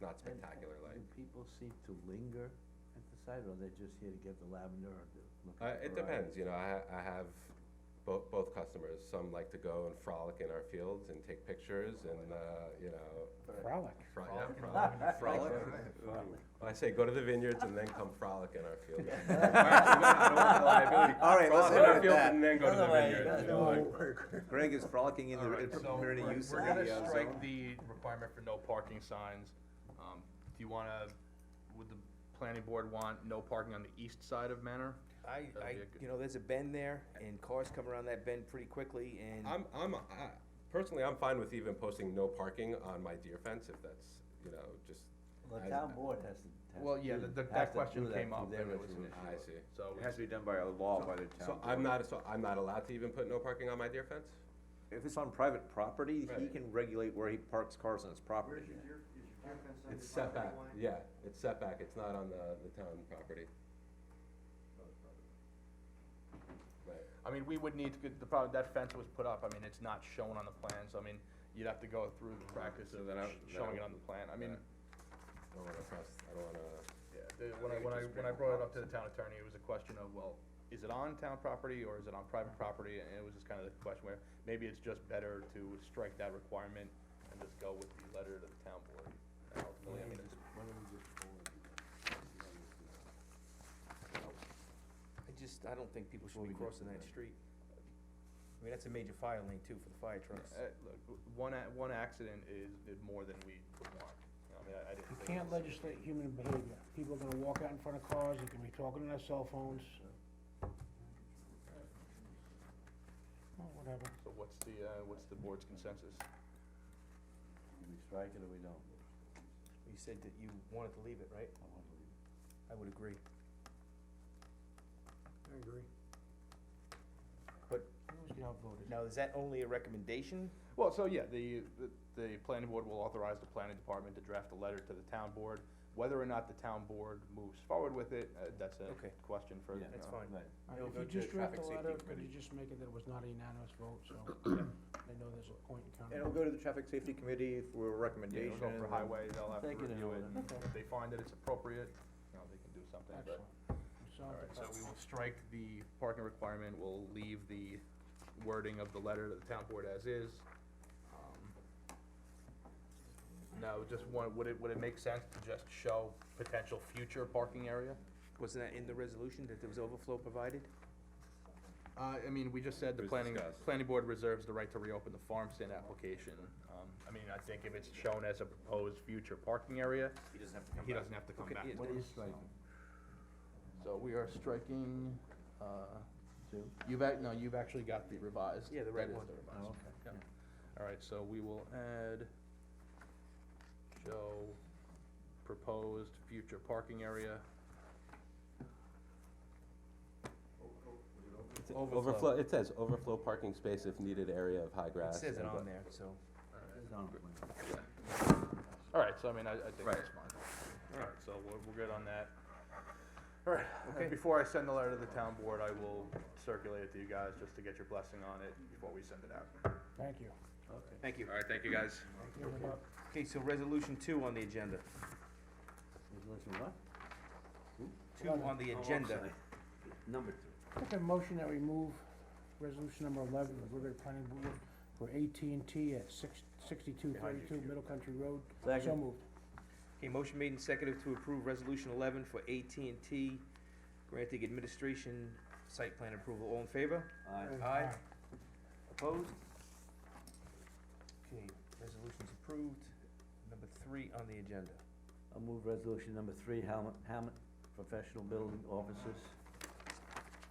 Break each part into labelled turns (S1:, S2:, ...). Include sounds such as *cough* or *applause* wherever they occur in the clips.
S1: not spectacular, like.
S2: Do people seem to linger at the site, or they're just here to get the lavender or to look
S1: Uh,
S2: at the
S1: it
S2: variety?
S1: depends, you know, I, I have both, both customers, some like to go and frolic in our fields and take pictures and, uh, you know.
S3: Frolic.
S1: fro- yeah, frolic, frolic. I say, go to the vineyards and then come frolic in our fields. Or
S2: *laughs*
S1: actually, no, I don't want the liability.
S4: All right, let's
S1: Frolic
S4: end
S1: in our
S4: with
S1: fields
S4: that.
S1: and then go to the
S2: Otherwise,
S1: vineyards. you
S2: no.
S1: know,
S4: *laughs*
S1: like-
S4: Greg is frolicking in
S5: All
S4: the,
S5: right,
S4: in
S5: so
S4: preparing to
S5: we're-
S4: use
S5: We're
S4: of the,
S5: gonna
S4: uh,
S5: strike
S4: zone.
S5: the requirement for no parking signs. Um, Do you wanna, would the planning board want no parking on the east side of Manor?
S6: I,
S5: That'd
S6: I,
S5: be a good-
S6: you know, there's a bend there, and cars come around that bend pretty quickly, and
S1: I'm, I'm, I, personally, I'm fine with even posting no parking on my deer fence if that's, you know, just.
S2: Well,
S1: I-
S2: the town board has to, has to do.
S5: Well, yeah, the- the-
S2: has
S5: that
S2: to
S5: question
S2: do that
S5: came
S2: through
S5: up
S2: their
S5: and it was an
S2: resolution.
S1: I see.
S5: So,
S4: It has to be done by a law by the town.
S1: So I'm
S4: board.
S1: not, so I'm not allowed to even put no parking on my deer fence?
S4: If it's on private property, he
S1: Right.
S4: can regulate where he parks cars on his property.
S1: It's setback, yeah, it's setback, it's not on the, the town property. Right,
S5: I mean, we would need to, get- the problem, that fence was put up, I mean, it's not shown on the plan, so I mean, you'd have to go through the practice
S4: So
S5: of
S4: then I- then I
S5: sh- showing it
S4: would-
S5: on the plan, I mean,
S1: I don't wanna cross, I don't wanna,
S5: yeah, the- when I,
S4: think it
S5: when I,
S4: just
S5: when I
S4: brings
S5: brought it up to the town attorney, it was a question of, well, is it on town property or is it on private property? And it was just kind of the question where, maybe it's just better to strike that requirement and just go with the letter to the town board.
S2: Why
S5: And ultimately, I
S2: don't we
S5: mean,
S2: just, why don't we just forward it?
S6: I just, I don't think people
S2: Before
S6: should be
S2: we get
S6: crossing
S2: to
S6: that
S2: that.
S6: street. I mean, that's a major fire lane too for the fire trucks.
S5: Uh, look, w- one, a- one accident is, is more than we would want. You know, I mean, I, I didn't.
S3: You
S5: think
S3: can't
S5: it's-
S3: legislate human behavior. People are gonna walk out in front of cars, they can be talking on their cell phones. Well, whatever.
S5: So what's the, uh, what's the board's consensus?
S2: Do we strike it or we don't?
S6: You said that you wanted to leave it, right?
S2: I want to leave it.
S6: I would agree.
S3: I agree.
S6: But
S3: We always get outvoted.
S6: now, is that only a recommendation?
S5: Well, so yeah, the, the, the planning board will authorize the planning department to draft a letter to the town board. Whether or not the town board moves forward with it, uh, that's a
S6: Okay.
S5: question for, uh,
S2: Yeah.
S5: you
S6: That's
S5: know,
S6: fine.
S2: Right.
S3: All right,
S6: It'll
S3: If
S6: go
S3: you
S6: to
S3: just
S6: traffic
S3: draft the
S6: safety
S3: letter, could
S6: committee.
S3: you just make it that it was not a unanimous vote, so they know there's a point in counting.
S4: It'll go to the traffic safety committee for a
S5: Yeah,
S4: recommendation.
S5: it'll go for
S4: and-
S5: highway, they'll have to
S2: Take it in
S5: review it,
S2: order.
S5: and if they find that it's appropriate, you know, they can do something, but.
S3: Excellent. Solve the
S5: Alright, so we
S3: problem.
S5: will strike the parking requirement, we'll leave the wording of the letter to the town board as is. Um, Now, just one, would it, would it make sense to just show potential future parking area?
S6: Wasn't that in the resolution that there was overflow provided?
S5: Uh, I mean, we just said the
S1: It was
S5: planning,
S1: discussed.
S5: planning board reserves the right to reopen the farm stand application. Um, I mean, I think if it's shown as a proposed future parking area,
S4: He doesn't have to come
S5: he
S4: back.
S5: doesn't have to come
S6: Okay,
S5: back.
S6: yeah,
S2: What
S6: there-
S2: is striking?
S5: So we are striking, uh,
S2: Two?
S5: you've ac- no, you've actually got the revised.
S6: Yeah, the
S5: That
S6: right
S5: is
S6: one.
S5: the revised.
S2: Oh, okay.
S5: Yeah. All right, so we will add, show proposed future parking area.
S1: It's
S6: Overflow.
S1: overflow, it says overflow parking space if needed area of high
S6: It
S1: grass.
S6: says it
S1: and
S6: on
S1: bu-
S6: there, so.
S2: It's on the plan.
S5: All right, so I mean, I, I think
S1: Right.
S5: that's fine. All right, so we're, we're good on that. All right, and before I send the letter to the town board, I will circulate it to you guys just to get your blessing on it before we send it out.
S3: Thank you.
S6: Thank you.
S5: All right, thank you, guys.
S3: Give it up.
S6: Okay, so resolution two on the agenda.
S2: Resolution what? Oh,
S6: Two on
S4: Oh,
S6: the agenda.
S2: Number two.
S3: Make a motion that we move resolution number eleven, of the Riverhead Planning Board for AT&T at six, sixty-two thirty-two Middle Country Road. So
S2: Second.
S3: moved.
S6: Okay, motion made and seconded to approve resolution eleven for AT&T granting administration site plan approval. All in favor?
S2: Aye.
S6: Aye. Opposed? Okay, resolution's approved. Number three on the agenda.
S2: I'll move resolution number three, Hammond, Hammond Professional Building Officers.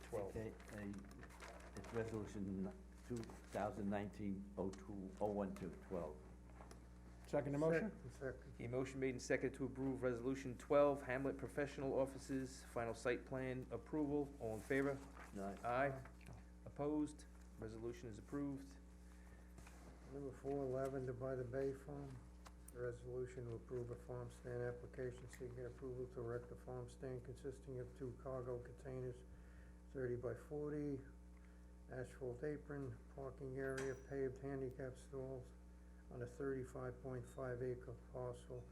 S6: Twelve.
S2: Okay, a- It's resolution two thousand nineteen oh two, oh one two, twelve.
S3: Second the motion?
S6: Okay, motion made and seconded to approve resolution twelve, Hamlet Professional Offices, final site plan approval. All in favor?
S2: Aye.
S6: Aye. Opposed? Resolution is approved.
S7: Number four, Lavender by the Bay Farm, resolution to approve a farm stand application seeking approval to erect a farm stand consisting of two cargo containers, thirty by forty, asphalt apron, parking area, paved handicap stalls on a thirty-five point five acre parcel